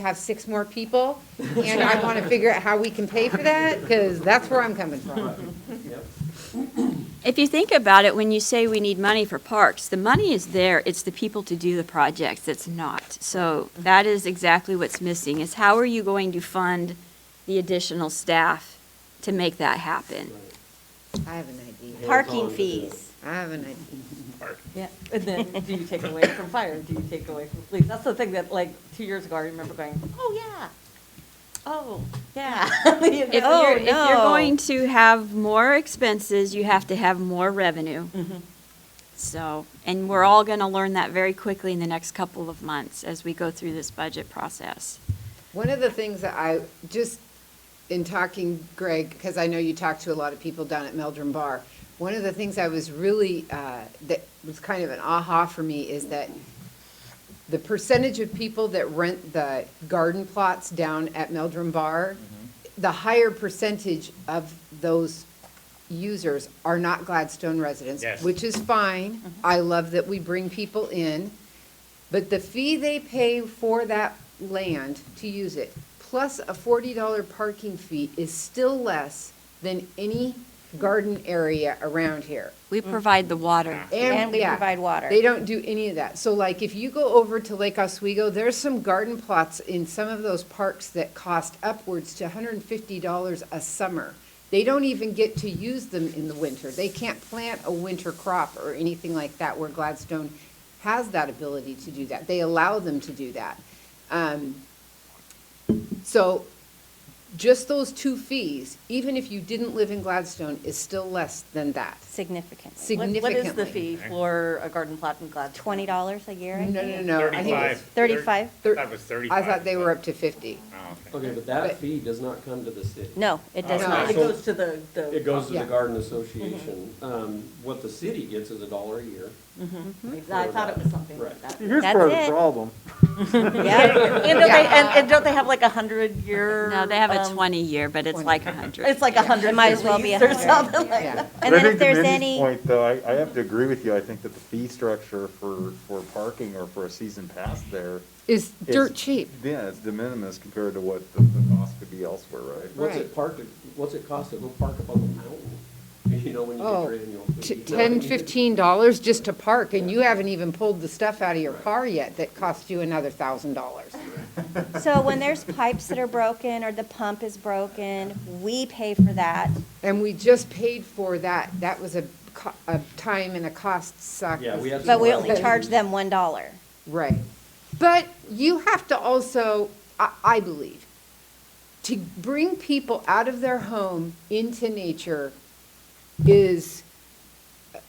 have six more people, and I want to figure out how we can pay for that, because that's where I'm coming from. If you think about it, when you say we need money for parks, the money is there, it's the people to do the projects that's not. So that is exactly what's missing, is how are you going to fund the additional staff to make that happen? I have an idea. Parking fees. I have an idea. Yeah, and then do you take away from fire, do you take away from police? That's the thing that, like, two years ago, I remember going, Oh, yeah. oh, yeah. You If Oh, know, you're, you're- if you're going to have more expenses, you have to have more revenue. Mm-hmm. So, and we're all gonna learn that very quickly in the next couple of months as we go through this budget process. One of the things that I, just in talking, Greg, because I know you talked to a lot of people down at Meldrum Bar, one of the things I was really, uh, that was kind of an aha for me is that the percentage of people that rent the garden plots down at Meldrum Bar, the higher percentage of those users are not Gladstone residents, Yes. which is fine. I love that we bring people in. But the fee they pay for that land to use it, plus a forty dollar parking fee is still less than any garden area around here. We provide the water. Mm. And we yeah, provide water. They don't do any of that. So like, if you go over to Lake Oswego, there's some garden plots in some of those parks that cost upwards to hundred and fifty dollars a summer. They don't even get to use them in the winter. They can't plant a winter crop or anything like that where Gladstone has that ability to do that. They allow them to do that. Um, so just those two fees, even if you didn't live in Gladstone, is still less than that. Significantly. Sig- What- What is the significantly. fee for a garden plot in Gladstone? Twenty dollars a year, I No, think? no, no. I think it's- Thirty-five. Thirty-five? Thir- That was I thirty-five. thought they were up to fifty. Oh, okay. Okay, But- but that fee does not come to the city. No, it does No. Oh, It not. So- goes to the, the. It goes to Yeah. Mm-hmm. the garden association. Um, what the city gets is a dollar a year. I thought it was something like Right. that. Here's That's part of the it. problem. Yeah, And don't they, and, and don't they have like a hundred year? No, they have a um, 20-year, but it's like 100. It's like a hundred. It might year as well be a lease or hundred. something like Yeah. and But I then if think to there's Mindy's any- Point, though, I, I have to agree with you. I think that the fee structure for, for parking or for a season pass there. Is is- dirt cheap. Yeah, it's de minimis compared to what the, the cost could be elsewhere, right? What's Right. it parked, at- what's it cost to go park up on the mountain? You know, when you get Oh, your annual t- fee. You know what I ten, mean? fifteen dollars just to park, and you haven't even pulled the stuff out of your car yet that cost you another thousand dollars. so when there's pipes that are broken or the pump is broken, we pay for that. And we just paid for that, that was a, co- a time and a cost suck. Yeah, we have But we Well, only then- charge them one dollar. Right. But you have to also, I, I believe, to bring people out of their home into nature is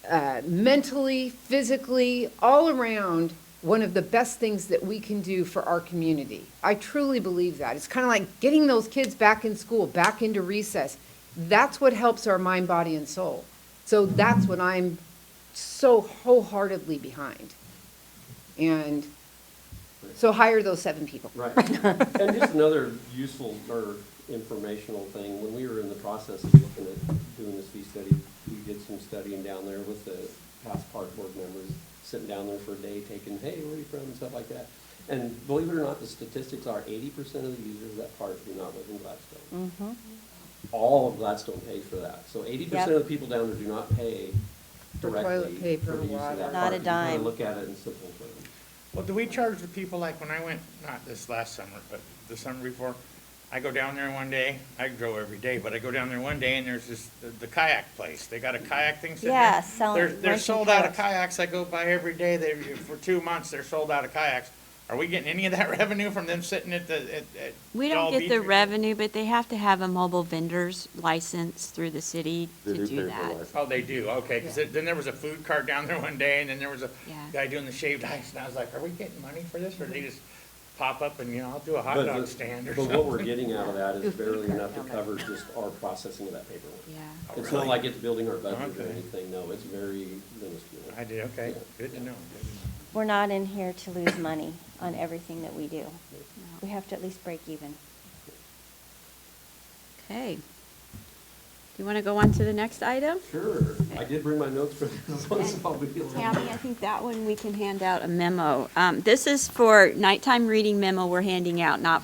uh, mentally, physically, all around, one of the best things that we can do for our community. I truly believe that. It's kind of like getting those kids back in school, back into recess. That's what helps our mind, body, and soul. So that's what I'm so wholeheartedly behind. And so hire those seven people. Right. And just another useful or informational thing, when we were in the process of looking at doing this fee study, we did some studying down there with the past park board members, sitting down there for a day taking, hey, where are you from, and stuff like that. And believe it or not, the statistics are eighty percent of the users of that park do not live in Gladstone. Mm-hmm. All of Gladstone pays for that, so eighty percent of the people down there do not pay For toilet directly paper, for the use water. of that park. Not a You can kinda dime. Look at it in simple terms. Well, do we charge the people, like, when I went, not this last summer, but the summer before, I go down there one day, I go every day, but I go down there one day and there's this, the- the kayak place, they got a kayak thing sitting there. Yeah, selling- They're, they're renting sold out of kayaks. kayaks, I go by every day, they, for two months, they're sold out of kayaks. Are we getting any of that revenue from them sitting at the, at, at? We don't Doll get Beach the or something? revenue, but they have to have a mobile vendor's license through the city They to pay for do that. license. Oh, they do, okay, because then there was a food cart down there one day, and then there was a Yeah. guy doing the shaved ice, and I was like, are we getting money for this, or they just pop up and, you know, I'll do a hot But dog the- stand or But what we're something? getting out of that is barely enough to cover just our processing of that paperwork. Yeah. It's not like it's building our budget or Oh, Okay. anything, no, it's very minuscule. I did, okay, good to know. We're not in here to lose money on everything that we do. We have to at least break even. Okay. Do you want to go on to the next item? Sure, I did bring my notes for this one, so I'll be a little- Tammy, I think that one we can hand out a memo. Um, This is for nighttime reading memo we're handing out, not